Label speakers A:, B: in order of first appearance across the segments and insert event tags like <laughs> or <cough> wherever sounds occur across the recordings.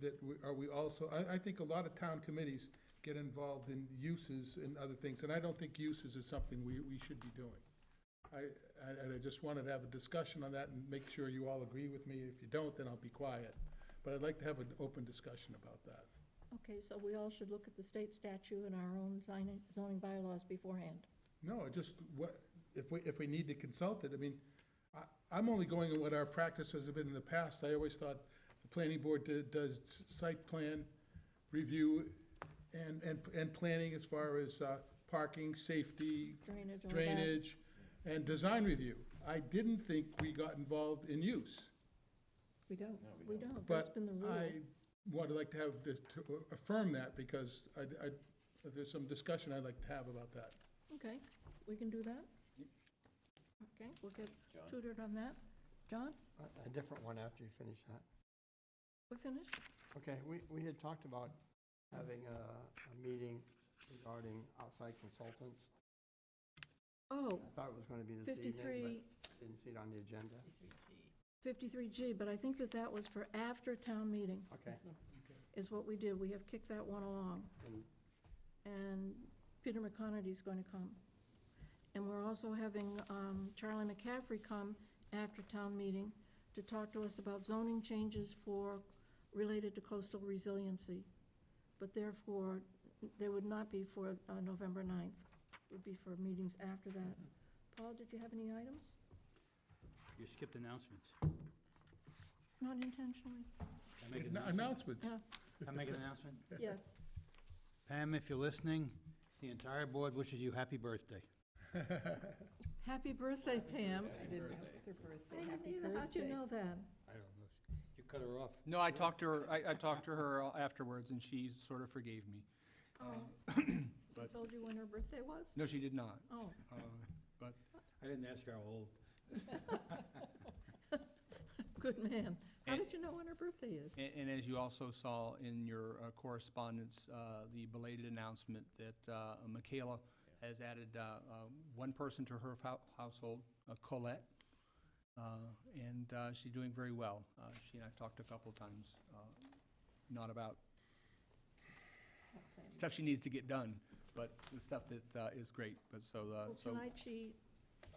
A: that we, are we also, I, I think a lot of town committees get involved in uses and other things, and I don't think uses is something we, we should be doing. I, I- and I just wanted to have a discussion on that and make sure you all agree with me. If you don't, then I'll be quiet. But I'd like to have an open discussion about that.
B: Okay, so we all should look at the state statute and our own zoning zoning bylaws beforehand.
A: No, I just, what, if we, if we need to consult it, I mean, I, I'm only going on what our practices have been in the past. I always thought the planning board did- does site plan review and, and, and planning as far as uh, parking, safety,
B: Drainage, all that.
A: drainage, and design review. I didn't think we got involved in use.
B: We don't.
C: No, we
B: We
C: don't.
B: don't. That's
A: But
B: been the
A: I
B: rule.
A: would like to have, this- to affirm that, because I, I, there's some discussion I'd like to have about that.
B: Okay, we can do that? Okay, we'll get
C: John?
B: tutored on that. John,
D: A- A different one after you finish that.
B: we're finished?
D: Okay, we, we had talked about having a, a meeting regarding outside consultants.
B: Oh,
D: I thought it was going to be this evening,
B: 53,
D: but didn't see it on the agenda.
B: 53G, but I think that that was for after town meeting,
D: Okay,
B: is what we did. We have kicked that one along.
D: and
B: and Peter McConaty's going to come. And we're also having um, Charlie McCaffrey come after town meeting to talk to us about zoning changes for, related to coastal resiliency. But therefore, they would not be for uh, November 9th, It would be for meetings after that. Paul, did you have any items?
E: You skipped announcements.
B: Not
F: <laughs>
B: intentionally?
E: Can I make an announcement?
A: Announcements.
B: Yeah,
E: Can I make an announcement?
B: Yes.
E: Pam, if you're listening, the entire board wishes you happy birthday.
B: Happy birthday, Pam.
F: I didn't know it was her
B: I
F: birthday.
B: didn't
F: Happy
B: either. How'd you
F: birthday.
B: know that?
E: I don't know. You cut her off.
G: No, I talked to her, I, I talked to her afterwards, and she sort of forgave me.
B: Oh,
F: Um,
B: <coughs> I told you when her birthday was?
G: No, she did not.
B: Oh.
G: Uh, But
E: I didn't ask her how old.
B: Good man. How
G: And-
B: did you know when her birthday is?
G: And, and as you also saw in your uh, correspondence, uh, the belated announcement that uh, Michaela has added uh, uh, one person to her hou- household, uh, Colette, Uh, and uh, she's doing very well. Uh, She and I talked a couple times, uh, not about stuff she needs to get done, but the stuff that uh, is great, but so, uh,
B: Well,
G: so.
B: tonight she,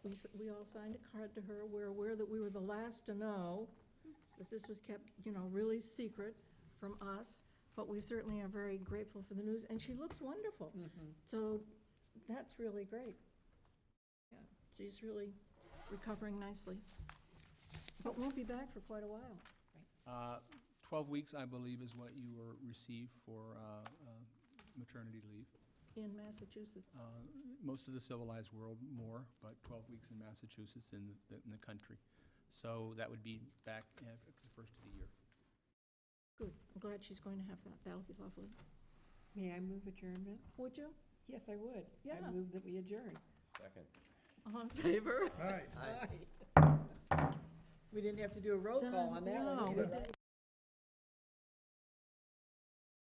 B: we, s- we all signed a card to her. We're aware that we were the last to know that this was kept, you know, really secret from us, but we certainly are very grateful for the news, and she looks wonderful. So that's really great. Yeah, she's really recovering nicely, but won't be back for quite a while.
G: Uh, 12 weeks, I believe, is what you were received for uh, uh, maternity leave.
B: In Massachusetts,
G: Uh, Most of the civilized world more, but 12 weeks in Massachusetts in the- in the country. So that would be back at the first of the year.
B: good. I'm glad she's going to have that. That'll be lovely.
F: May I move adjournment?
B: Would you?
F: Yes, I would.
B: Yeah.
F: I move that we adjourn.
C: Second.
B: All in favor?
A: All right.
F: We didn't have to do a roll call on that one
B: No,
F: either,
B: we
F: right?
B: didn't.